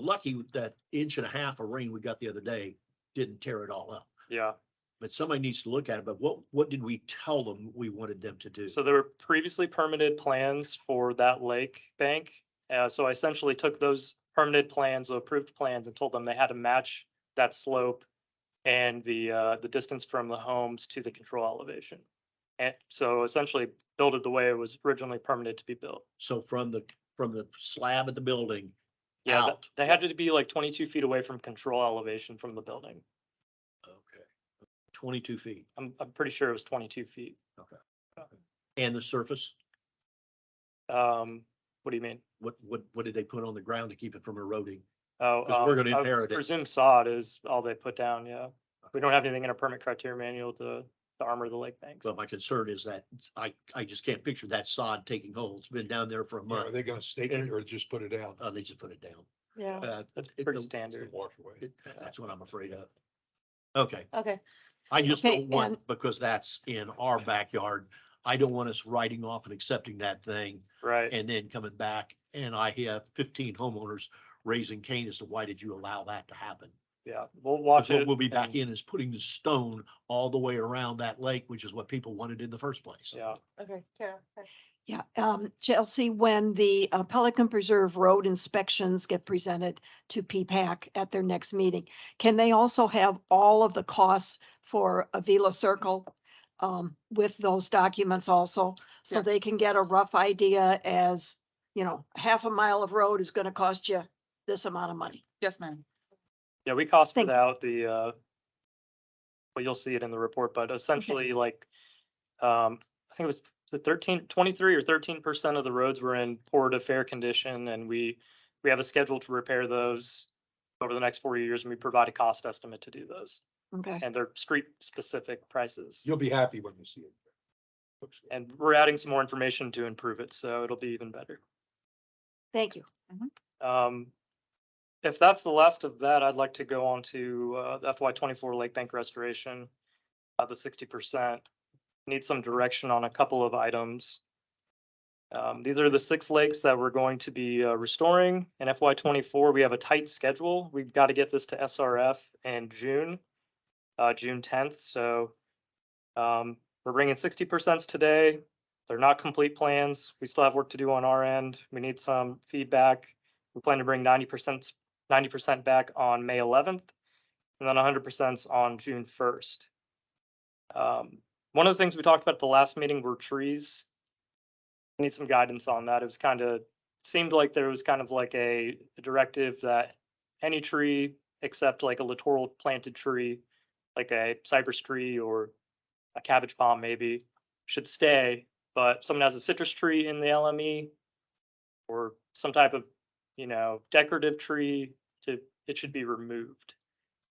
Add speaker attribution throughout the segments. Speaker 1: lucky with that inch and a half of rain we got the other day didn't tear it all up.
Speaker 2: Yeah,
Speaker 1: But somebody needs to look at it, but what, what did we tell them we wanted them to do?
Speaker 2: so there were previously permitted plans for that lake bank. Uh, so I essentially took those permitted plans, or approved plans, and told them they had to match that slope and the, uh, the distance from the homes to the control elevation. And so essentially built it the way it was originally permitted to be built.
Speaker 1: So from the, from the slab of the building
Speaker 2: Yeah, th-
Speaker 1: out.
Speaker 2: they had to be like twenty-two feet away from control elevation from the building.
Speaker 1: Okay. Twenty-two feet
Speaker 2: I'm, I'm pretty sure it was twenty-two feet.
Speaker 1: and the surface,
Speaker 2: Um, what do you mean?
Speaker 1: what, what, what did they put on the ground to keep it from eroding?
Speaker 2: Oh,
Speaker 1: 'Cause we're
Speaker 2: um,
Speaker 1: gonna
Speaker 2: I
Speaker 1: inherit it.
Speaker 2: Presume sod is all they put down, yeah. We don't have anything in our permit criteria manual to, to armor the lake banks.
Speaker 1: But my concern is that I, I just can't picture that sod taking hold. It's been down there for a
Speaker 3: Yeah, Are
Speaker 1: month.
Speaker 3: they gonna stake it or just put it out?
Speaker 1: Uh, they just put it down.
Speaker 4: Yeah,
Speaker 1: Uh,
Speaker 2: That's
Speaker 1: it-
Speaker 2: pretty
Speaker 1: the-
Speaker 2: standard.
Speaker 3: Wash away.
Speaker 1: it- That's what I'm afraid of. Okay.
Speaker 4: okay.
Speaker 1: I just
Speaker 4: Okay,
Speaker 1: don't want,
Speaker 4: and-
Speaker 1: because that's in our backyard, I don't want us writing off and accepting that thing
Speaker 2: Right,
Speaker 1: and then coming back and I have fifteen homeowners raising Cain as to why did you allow that to happen?
Speaker 2: yeah, we'll
Speaker 1: 'Cause
Speaker 2: watch
Speaker 1: what
Speaker 2: it.
Speaker 1: We'll be back
Speaker 2: and-
Speaker 1: in is putting the stone all the way around that lake, which is what people wanted in the first place.
Speaker 2: Yeah,
Speaker 4: Okay, Carol. okay.
Speaker 5: Yeah, um, Chelsea, when the uh, Pelican Preserve Road inspections get presented to P-PAC at their next meeting, can they also have all of the costs for Avila Circle um, with those documents also? So
Speaker 4: Yes.
Speaker 5: they can get a rough idea as, you know, half a mile of road is gonna cost you this amount of money.
Speaker 4: Yes, ma'am.
Speaker 2: yeah, we costed
Speaker 5: Thank-
Speaker 2: out the, uh, well, you'll see it in the report, but essentially like, um, I think it was was it 13, 23 or thirteen percent of the roads were in poor to fair condition and we, we have a schedule to repair those over the next four years and we provide a cost estimate to do those.
Speaker 5: Okay,
Speaker 2: and they're street specific prices.
Speaker 3: You'll be happy when you see it. Looks good.
Speaker 2: And we're adding some more information to improve it, so it'll be even better.
Speaker 5: thank you.
Speaker 2: Um, if that's the last of that, I'd like to go on to, uh, the FY twenty-four Lake Bank Restoration, uh, the sixty percent. Need some direction on a couple of items. Um, these are the six lakes that we're going to be, uh, restoring. In FY twenty-four, we have a tight schedule. We've got to get this to SRF in June, uh, June tenth, so, um, we're bringing sixty percent today. They're not complete plans. We still have work to do on our end. We need some feedback. We plan to bring ninety percent, ninety percent back on May eleventh, and then hundred percent on June first. Um, One of the things we talked about at the last meeting were trees. Need some guidance on that. It was kind of, seemed like there was kind of like a directive that any tree except like a littoral planted tree, like a cypress tree or a cabbage palm maybe, should stay. But if someone has a citrus tree in the LME or some type of you know, decorative tree to, it should be removed.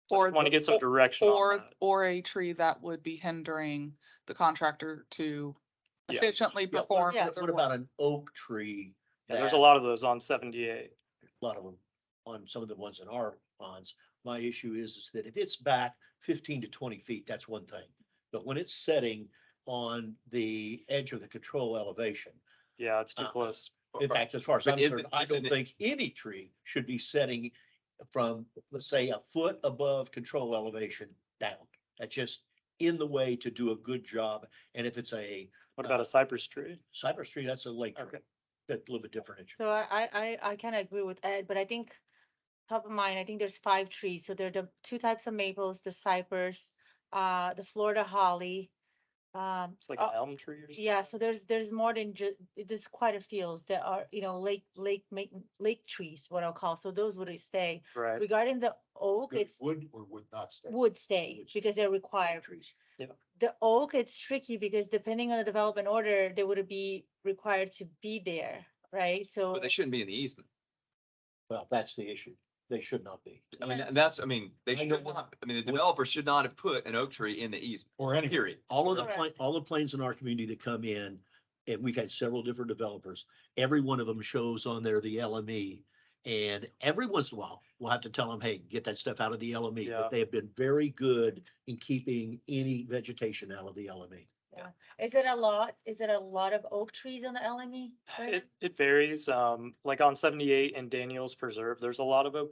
Speaker 6: Or,
Speaker 2: Want to get some
Speaker 6: or-
Speaker 2: direction on
Speaker 6: or,
Speaker 2: that.
Speaker 6: or a tree that would be hindering the contractor to
Speaker 2: Yeah.
Speaker 6: efficiently
Speaker 1: Yeah,
Speaker 6: perform.
Speaker 4: yeah,
Speaker 6: their work.
Speaker 1: What about an oak tree?
Speaker 2: Yeah, There's a
Speaker 1: that-
Speaker 2: lot of those on seventy-eight.
Speaker 1: a lot of them on some of the ones in our ponds. My issue is, is that if it's back fifteen to twenty feet, that's one thing. But when it's setting on the edge of the control elevation,
Speaker 2: Yeah, it's too
Speaker 6: Uh-huh.
Speaker 1: Uh,
Speaker 2: close.
Speaker 1: in fact, as far as I'm
Speaker 7: But isn't-
Speaker 1: concerned, I don't
Speaker 7: isn't it-
Speaker 1: think any tree should be setting from, let's say, a foot above control elevation down. That's just in the way to do a good job. And if it's a
Speaker 2: What
Speaker 6: Uh-huh.
Speaker 2: about a cypress tree?
Speaker 1: cypress tree, that's a lake tree.
Speaker 2: Okay.
Speaker 1: That's a little bit different. issue.
Speaker 4: So I, I, I kind of agree with Ed, but I think top of mind, I think there's five trees. So there are the two types of maples, the cypress, uh, the Florida holly. Um,
Speaker 2: It's like
Speaker 6: Oh,
Speaker 4: uh,
Speaker 2: an elm tree or something.
Speaker 4: yeah, so there's, there's more than ju, there's quite a few that are, you know, lake, lake, ma- lake trees, what I'll call. So those would stay.
Speaker 2: Right.
Speaker 4: Regarding the oak,
Speaker 3: Good.
Speaker 4: it's
Speaker 3: Would or would not stay?
Speaker 4: would stay
Speaker 1: Would
Speaker 4: because they're required.
Speaker 1: Trees.
Speaker 4: The oak, it's tricky because depending on the development order, they would be required to be there, right? So.
Speaker 7: But they shouldn't be in the easement.
Speaker 1: Well, that's the issue. They should not be.
Speaker 7: I mean, and that's, I
Speaker 1: I
Speaker 7: mean, they should
Speaker 1: know that.
Speaker 7: not, I mean, the developer should not have put an oak tree in the easement,
Speaker 3: Or any.
Speaker 7: period.
Speaker 1: All of the,
Speaker 4: Correct.
Speaker 1: pla- all the planes in our community that come in, and we've had several different developers, every one of them shows on there the LME. And every once in a while, we'll have to tell them, hey, get that stuff out of the LME.
Speaker 2: Yeah.
Speaker 1: But they have been very good in keeping any vegetation out of the E. LME.
Speaker 4: Is it a lot? Is it a lot of oak trees on the E? LME? Brandon?
Speaker 2: It, it varies. Um, like on seventy-eight and Daniels Preserve, there's a lot of oak